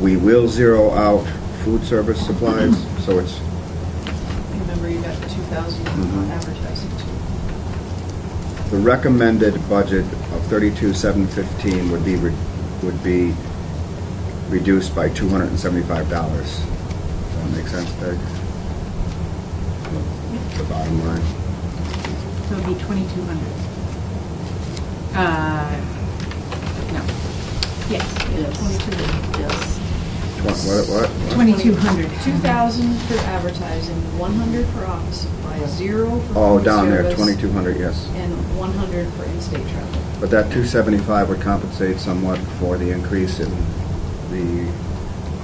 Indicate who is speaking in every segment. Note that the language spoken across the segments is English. Speaker 1: We will zero out food service supplies, so it's,
Speaker 2: Remember, you got two thousand
Speaker 1: Mhm.
Speaker 2: on advertising too.
Speaker 1: the recommended budget of thirty-two, seven fifteen would be, re- would be reduced by two hundred and seventy-five dollars. Does that make sense, Peg? The bottom line.
Speaker 3: So it'd be twenty-two hundred. Uh, no.
Speaker 2: Yes.
Speaker 3: Yes.
Speaker 2: Yes.
Speaker 1: Twen- What, what? what?
Speaker 3: Twenty-two hundred.
Speaker 2: Two thousand for advertising, one hundred for office supplies, zero for.
Speaker 1: Oh,
Speaker 2: food
Speaker 1: down there,
Speaker 2: service,
Speaker 1: twenty-two hundred, yes.
Speaker 2: And one hundred for in-state travel.
Speaker 1: But that two seventy-five would compensate somewhat for the increase in the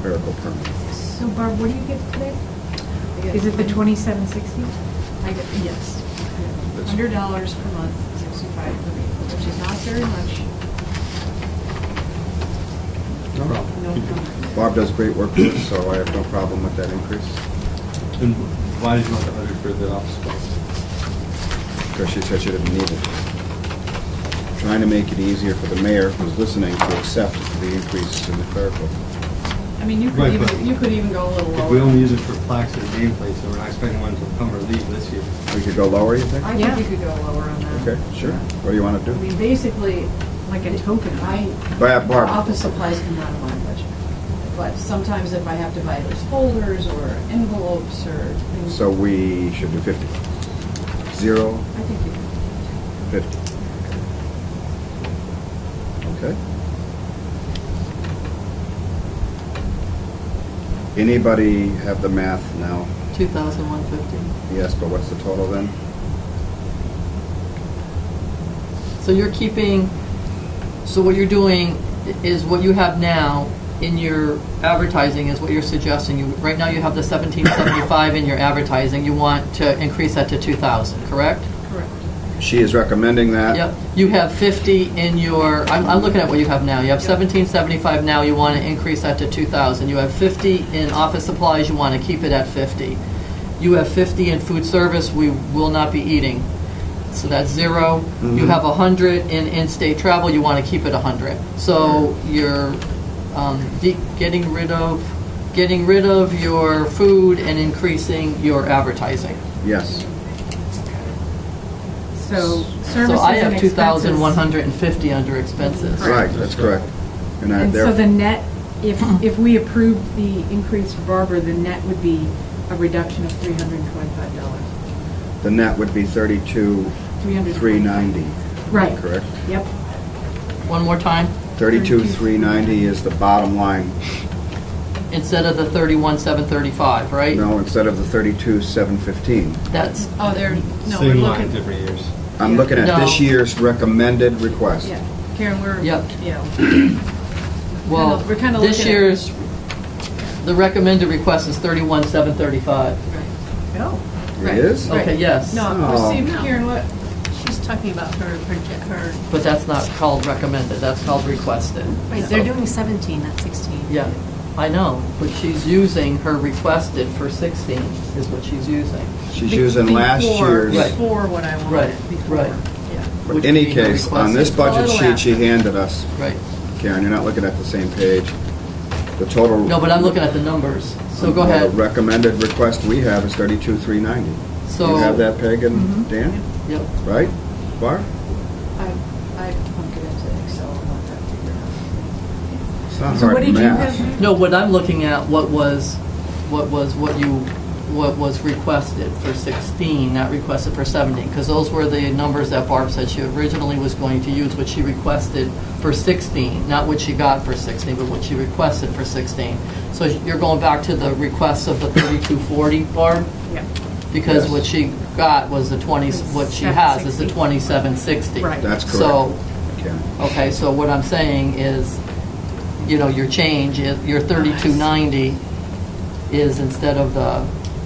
Speaker 1: clerical permit.
Speaker 3: So Barb, what do you get today?
Speaker 2: I get
Speaker 3: Is it the
Speaker 2: one-
Speaker 3: twenty-seven sixty?
Speaker 2: I get, yes.
Speaker 1: That's-
Speaker 2: Hundred dollars per month, sixty-five per week, which is not very much.
Speaker 1: No
Speaker 2: No comment.
Speaker 1: Bob does great work for us, so I have no problem with that increase,
Speaker 4: And why did you want the hundred for the office supplies?
Speaker 1: because she said she didn't need it. Trying to make it easier for the mayor who's listening to accept the increase in the clerical.
Speaker 2: I mean, you could
Speaker 4: Right, but-
Speaker 2: even, you could even go a little lower.
Speaker 4: If we only use it for plaques and nameplates, and we're not expecting one to come or leave this year.
Speaker 1: We could go lower, you think?
Speaker 2: I
Speaker 3: Yeah.
Speaker 2: think we could go lower on that.
Speaker 1: Okay, sure. What do you want to
Speaker 2: I mean,
Speaker 1: do?
Speaker 2: basically,
Speaker 3: Like a token?
Speaker 2: I,
Speaker 1: Barb, Barb.
Speaker 2: office supplies come out of my budget. But sometimes if I have to buy those folders or envelopes or things.
Speaker 1: So we should do fifty. Zero,
Speaker 2: I think you could.
Speaker 1: fifty. Okay. Anybody have the math now?
Speaker 5: 2,150.
Speaker 1: Yes, but what's the total then?
Speaker 5: So you're keeping, so what you're doing i- is what you have now in your advertising is what you're suggesting. You, right now you have the 1775 in your advertising. You want to increase that to 2,000, correct?
Speaker 2: Correct.
Speaker 1: She is recommending that.
Speaker 5: Yep. You have 50 in your, I'm, I'm looking at what you have now. You have
Speaker 2: Yep.
Speaker 5: 1775 now, you want to increase that to 2,000. You have 50 in office supplies, you want to keep it at 50. You have 50 in food service, we will not be eating. So that's zero. You
Speaker 1: Mhm.
Speaker 5: have 100 in in-state travel, you want to keep it 100. So you're um, de- getting rid of, getting rid of your food and increasing your advertising.
Speaker 1: Yes.
Speaker 3: So services and
Speaker 5: So I have
Speaker 3: expenses.
Speaker 5: 2,150 under expenses.
Speaker 1: Right, that's correct. And I
Speaker 3: And so the
Speaker 1: there,
Speaker 3: net, if,
Speaker 5: Uh-huh.
Speaker 3: if we approved the increase for Barbara, the net would be a reduction of three hundred and twenty-five dollars.
Speaker 1: the net would be thirty-two, three ninety.
Speaker 3: Right.
Speaker 1: Correct?
Speaker 3: Yep.
Speaker 5: One more time,
Speaker 1: Thirty-two, three ninety is the bottom line.
Speaker 5: instead of the thirty-one, seven thirty-five, right?
Speaker 1: No, instead of the thirty-two, seven fifteen.
Speaker 5: That's,
Speaker 2: Oh, they're, no, we're
Speaker 4: Same line,
Speaker 2: looking,
Speaker 4: different years.
Speaker 1: I'm looking at this
Speaker 5: No.
Speaker 1: year's recommended request.
Speaker 2: yeah, Karen, we're,
Speaker 5: Yep.
Speaker 2: yeah,
Speaker 5: well,
Speaker 2: We're kinda
Speaker 5: this
Speaker 2: looking at-
Speaker 5: year's, the recommended request is thirty-one, seven thirty-five.
Speaker 2: right.
Speaker 3: Oh.
Speaker 2: Right.
Speaker 1: It is?
Speaker 2: Right.
Speaker 5: Okay, yes.
Speaker 2: No,
Speaker 1: Oh.
Speaker 2: but see, Karen, what,
Speaker 6: She's talking about her, project- her,
Speaker 5: But that's not called recommended, that's called requested.
Speaker 6: wait, they're doing 17, not 16.
Speaker 5: Yeah, I know, but she's using her requested for sixteen is what she's using.
Speaker 1: She's
Speaker 2: Be-
Speaker 1: using last
Speaker 2: before-
Speaker 1: year's.
Speaker 5: Right.
Speaker 2: Before what I
Speaker 5: Right,
Speaker 2: wanted, before.
Speaker 5: right,
Speaker 2: Yeah.
Speaker 1: But
Speaker 5: Which
Speaker 1: any
Speaker 5: would be her
Speaker 1: case, on
Speaker 5: request.
Speaker 1: this budget
Speaker 2: Total
Speaker 1: sheet she
Speaker 2: after.
Speaker 1: handed us,
Speaker 5: right.
Speaker 1: Karen, you're not looking at the same page. The total.
Speaker 5: No, but I'm looking at the numbers, so go
Speaker 1: the
Speaker 5: ahead.
Speaker 1: Recommended request we have is thirty-two, three ninety. Do
Speaker 5: So.
Speaker 1: you have that, Peg and Dan?
Speaker 5: Yep.
Speaker 1: Right? Bar?
Speaker 2: I, I punk it into Excel and let that figure out.
Speaker 1: It's not
Speaker 3: So
Speaker 1: hard
Speaker 3: what did you
Speaker 1: math.
Speaker 3: have?
Speaker 5: No, what I'm looking at, what was, what was, what you, what was requested for 16, not requested for 17, because those were the numbers that Barb said she originally was going to use, what she requested for 16, not what she got for 16, but what she requested for 16. So you're going back to the request of the 3240, Barb?
Speaker 3: Yep.
Speaker 5: Because
Speaker 1: Yes.
Speaker 5: what she got was the 20, what she has is the
Speaker 3: 760.
Speaker 5: 2760.
Speaker 3: Right.
Speaker 1: That's correct.
Speaker 5: So
Speaker 1: Karen.
Speaker 5: Okay, so what I'm saying is, you know, your change, is- your 3290 is instead of the,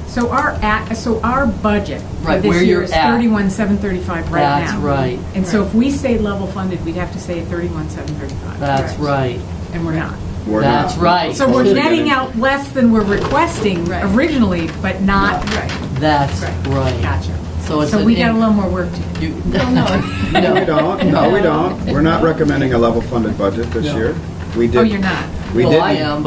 Speaker 3: So our at, so our budget for
Speaker 5: Right, where
Speaker 3: this year
Speaker 5: you're
Speaker 3: is
Speaker 5: at.
Speaker 3: thirty-one, seven thirty-five right now.
Speaker 5: That's right.
Speaker 3: And so if we stay level funded, we'd have to stay at thirty-one, seven thirty-five.
Speaker 5: that's right.
Speaker 3: And we're not.
Speaker 1: We're not.
Speaker 5: That's right.
Speaker 3: So we're
Speaker 1: Supposed to
Speaker 3: netting
Speaker 1: get
Speaker 3: out less than we're requesting
Speaker 2: Right.
Speaker 3: originally, but not,
Speaker 2: Right.
Speaker 5: That's
Speaker 3: Right.
Speaker 5: right.
Speaker 3: gotcha.
Speaker 5: So it's
Speaker 3: So
Speaker 5: an
Speaker 3: we got a
Speaker 5: in-
Speaker 3: little more work to do.
Speaker 5: You-
Speaker 2: no.
Speaker 1: No, we
Speaker 5: No.
Speaker 1: don't, no, we don't. We're not recommending a level funded budget this
Speaker 5: No.
Speaker 1: year. We did.
Speaker 3: Oh, you're not?
Speaker 1: We
Speaker 5: Well, I
Speaker 1: didn't.
Speaker 5: am,